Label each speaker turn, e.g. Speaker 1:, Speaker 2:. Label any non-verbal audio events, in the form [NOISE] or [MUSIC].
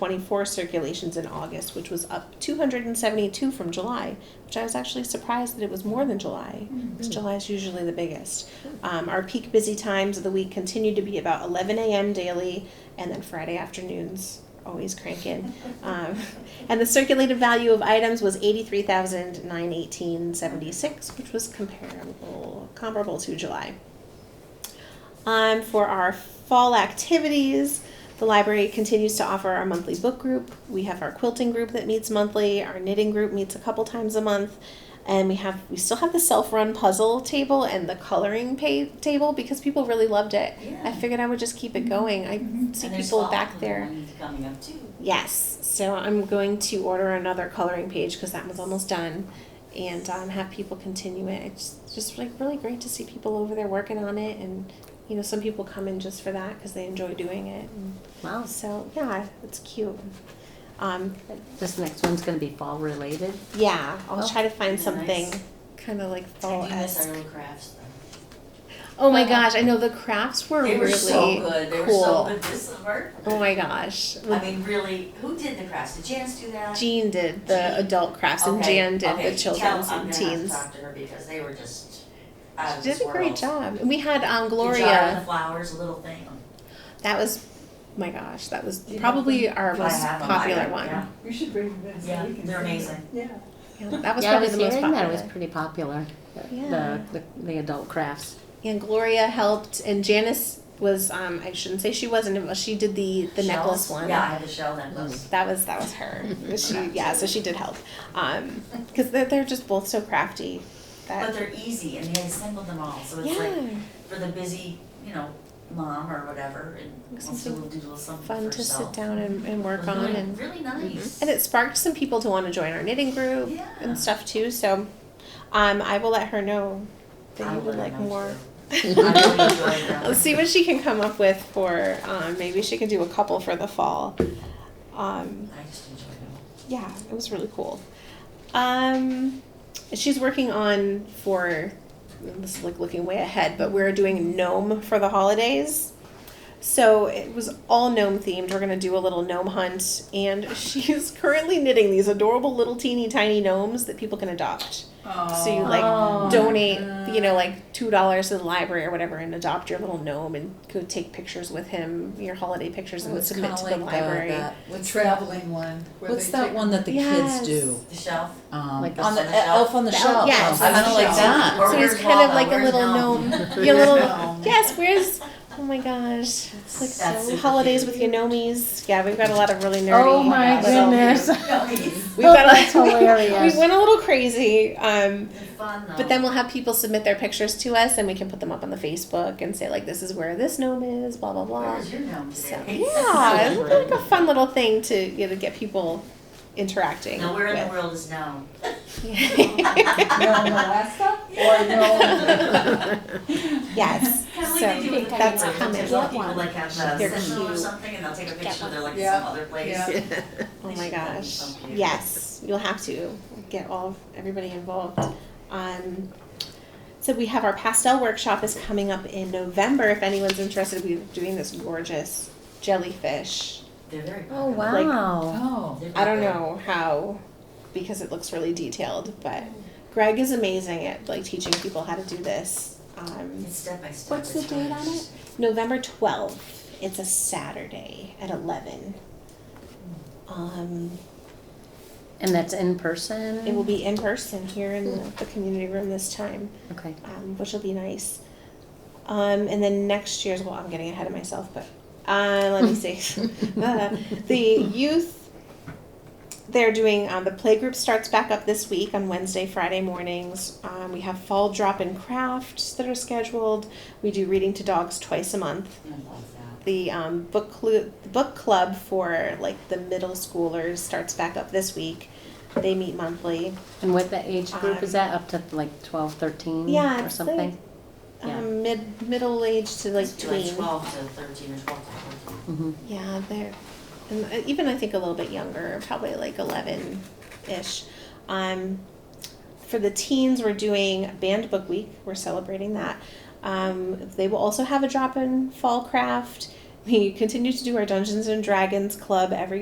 Speaker 1: 124 circulations in August, which was up 272 from July, which I was actually surprised that it was more than July, because July is usually the biggest. Um, our peak busy times of the week continue to be about 11 a.m. daily, and then Friday afternoons always crank in. Um, and the circulated value of items was 83,918.76, which was comparable comparable to July. Um, for our fall activities, the library continues to offer our monthly book group. We have our quilting group that meets monthly. Our knitting group meets a couple times a month, and we have we still have the self-run puzzle table and the coloring pa- table because people really loved it. I
Speaker 2: Yeah. Mm-hmm.
Speaker 1: figured I would just keep it going. I see
Speaker 2: And there's
Speaker 1: people
Speaker 2: fall
Speaker 1: back there.
Speaker 2: ones Coming up too.
Speaker 1: Yes, so I'm going to order another coloring page because that one's almost done, and um, have people continue it. It's just like really great to see people over there working on it, and you know some people come in just for that because they enjoy doing it.
Speaker 3: Wow,
Speaker 1: So yeah, it's cute. Um,
Speaker 3: this next one's gonna be fall related.
Speaker 1: yeah, I'll
Speaker 3: Oh,
Speaker 1: try to find
Speaker 2: nice.
Speaker 1: something kind of like fall
Speaker 2: I do miss our
Speaker 1: esque.
Speaker 2: little crafts though.
Speaker 1: Oh my gosh, I know the crafts were
Speaker 2: They were
Speaker 1: really
Speaker 2: so good, they were so
Speaker 1: cool.
Speaker 2: good this summer.
Speaker 1: Oh my gosh,
Speaker 2: I mean, really, who did the crafts? Did Janice do that?
Speaker 1: Jean did the
Speaker 2: Jean.
Speaker 1: adult crafts and
Speaker 2: Okay,
Speaker 1: Jan did the
Speaker 2: okay, tell-
Speaker 1: children's and teens.
Speaker 2: I'm gonna have to talk to her because they were just out of
Speaker 1: She
Speaker 2: this
Speaker 1: did a great
Speaker 2: world.
Speaker 1: job. And we had um,
Speaker 2: The jar and
Speaker 1: Gloria.
Speaker 2: the flowers, a little thing.
Speaker 1: That was, my gosh, that was
Speaker 2: Do you
Speaker 1: probably our
Speaker 2: Do I
Speaker 1: most
Speaker 2: have them? I
Speaker 1: popular
Speaker 2: don't-
Speaker 1: one.
Speaker 2: yeah.
Speaker 4: We should bring them in. so
Speaker 2: Yeah,
Speaker 4: we
Speaker 2: they're
Speaker 4: can see them.
Speaker 2: amazing.
Speaker 4: Yeah.
Speaker 1: Yeah, that was
Speaker 3: Yeah, I
Speaker 1: probably
Speaker 3: was
Speaker 1: the most
Speaker 3: hearing that
Speaker 1: popular.
Speaker 3: it was pretty popular, the-
Speaker 1: Yeah.
Speaker 3: the, the, the adult crafts.
Speaker 1: and Gloria helped, and Janice was. Um, I shouldn't say she wasn't. involved. She did the the necklace
Speaker 2: Shells?
Speaker 1: one.
Speaker 2: Yeah, I had the shell necklace.
Speaker 1: That was that was
Speaker 3: [LAUGHS]
Speaker 1: her. she yeah, so she did help. Um, because they're, they're just both so crafty.
Speaker 2: But
Speaker 1: That
Speaker 2: they're easy and they assembled them all, so
Speaker 1: Mm-hmm. yeah,
Speaker 2: it's like for the busy, you know, mom or whatever and
Speaker 1: This is
Speaker 2: wants to do a little something for Mm-hmm.
Speaker 1: fun
Speaker 2: herself.
Speaker 1: to sit down and, and work
Speaker 2: Was
Speaker 1: on
Speaker 2: really-
Speaker 1: and.
Speaker 2: Really nice.
Speaker 1: Mm-hmm. And it sparked some people to want to join our knitting group.
Speaker 2: Yeah.
Speaker 1: and stuff too. So, um, I will let her know that
Speaker 2: I
Speaker 1: you would like
Speaker 2: know
Speaker 1: more. [LAUGHS]
Speaker 2: too. I really enjoyed that.
Speaker 1: Let's see what she can come up with for. Um, maybe she can do a couple for the fall. Um,
Speaker 2: I just enjoyed it.
Speaker 1: yeah, it was really cool. Um, she's working on for. This is like looking way ahead, but we're doing gnome for the holidays. So it was all gnome themed. We're gonna do a little gnome hunt, and [LAUGHS] she is currently knitting these adorable little teeny tiny gnomes that people can adopt. So you like
Speaker 3: Oh.
Speaker 1: donate, you know, like two dollars to the library or whatever, and adopt your little gnome and go take pictures with him, your holiday pictures, and
Speaker 5: Oh, it's
Speaker 1: submit
Speaker 5: kinda
Speaker 1: to the
Speaker 5: like the-
Speaker 1: library.
Speaker 5: that-
Speaker 4: The traveling one. where
Speaker 5: What's
Speaker 4: they
Speaker 5: that
Speaker 4: take-
Speaker 5: one that the
Speaker 1: Yes.
Speaker 5: kids do?
Speaker 2: The shelf.
Speaker 5: Um,
Speaker 3: Like
Speaker 5: on
Speaker 2: the
Speaker 5: the
Speaker 2: shelf?
Speaker 5: Elf on the
Speaker 1: The elf-
Speaker 5: Shelf.
Speaker 1: yes.
Speaker 5: kind of like that.
Speaker 2: Or
Speaker 1: so he's
Speaker 2: where's
Speaker 1: kind of
Speaker 2: Waldo?
Speaker 1: like a
Speaker 2: Where's
Speaker 1: little
Speaker 2: Gnome?
Speaker 1: gnome. [LAUGHS] [LAUGHS] your
Speaker 4: [LAUGHS]
Speaker 1: little
Speaker 4: No.
Speaker 1: yes, where's? Oh my gosh, it's like
Speaker 2: That's
Speaker 1: so
Speaker 2: super
Speaker 1: holidays
Speaker 2: cute.
Speaker 1: with your gnomies. Yeah, we've got a lot of really nerdy. uh,
Speaker 3: Oh my
Speaker 1: little-
Speaker 3: goodness.
Speaker 2: No, it's
Speaker 1: We've got a,
Speaker 3: [LAUGHS] That's hilarious.
Speaker 1: we went a little crazy. Um,
Speaker 2: fun though.
Speaker 1: But then we'll have people submit their pictures to us, and we can put them up on the Facebook and say like, "This is where this gnome is," blah blah blah.
Speaker 2: Where's your gnome
Speaker 1: So
Speaker 2: today?
Speaker 1: yeah, it's like a fun little thing to you know get people interacting.
Speaker 2: Now where in the
Speaker 1: with.
Speaker 2: world is gnome?
Speaker 4: No, no, Alaska? Or no,
Speaker 1: [LAUGHS] yes.
Speaker 2: Kind of like
Speaker 1: so
Speaker 2: they do with the
Speaker 1: that's
Speaker 2: paper.
Speaker 1: coming.
Speaker 2: Sometimes People like have
Speaker 1: They're
Speaker 2: a sentinel or
Speaker 1: cute.
Speaker 2: something and they'll take a picture, they're like
Speaker 4: Yeah.
Speaker 2: some other place.
Speaker 4: Yeah.
Speaker 1: Oh my
Speaker 2: They should have
Speaker 1: gosh.
Speaker 2: something.
Speaker 1: Yes, you'll have to get all of everybody involved. Um, so we have our pastel workshop is coming up in November. If anyone's interested, we're doing this gorgeous jellyfish.
Speaker 2: They're very popular.
Speaker 3: Oh, wow.
Speaker 5: Oh.
Speaker 2: They're
Speaker 1: I don't
Speaker 2: popular.
Speaker 1: know how, because it looks really detailed, but Greg is amazing at like teaching people how to do this. Um,
Speaker 2: It's step by step.
Speaker 3: What's the
Speaker 2: it's
Speaker 3: date
Speaker 2: fun.
Speaker 3: on it?
Speaker 1: November twelfth, it's a Saturday at eleven. Um,
Speaker 3: And that's in person?
Speaker 1: it will be in person here in the, the community room this time,
Speaker 3: Okay.
Speaker 1: um, which will be nice. Um, and then next year's, well, I'm getting ahead of myself, but uh, let me see. [LAUGHS] Uh, the youth they're doing um, the playgroup starts back up this week on wednesday friday mornings um, we have fall drop in crafts that are scheduled we do reading to dogs twice a month
Speaker 2: I love that.
Speaker 1: the um, book, clu- book club for like the middle schoolers starts back up this week they meet monthly
Speaker 3: And what the age group is
Speaker 1: Um,
Speaker 3: that, up to like twelve, thirteen
Speaker 1: Yeah,
Speaker 3: or
Speaker 1: it's
Speaker 3: something?
Speaker 1: um,
Speaker 3: Yeah.
Speaker 1: mid middle age to like
Speaker 2: Must be
Speaker 1: tween
Speaker 2: twelve to thirteen or twelve to fourteen.
Speaker 3: Mhm.
Speaker 1: Yeah, they're, and uh, even I think a little bit younger, probably like eleven ish. Um, for the teens, we're doing Band Book Week. We're celebrating that. Um, they will also have a drop in fall craft. We continue to do our Dungeons and Dragons club every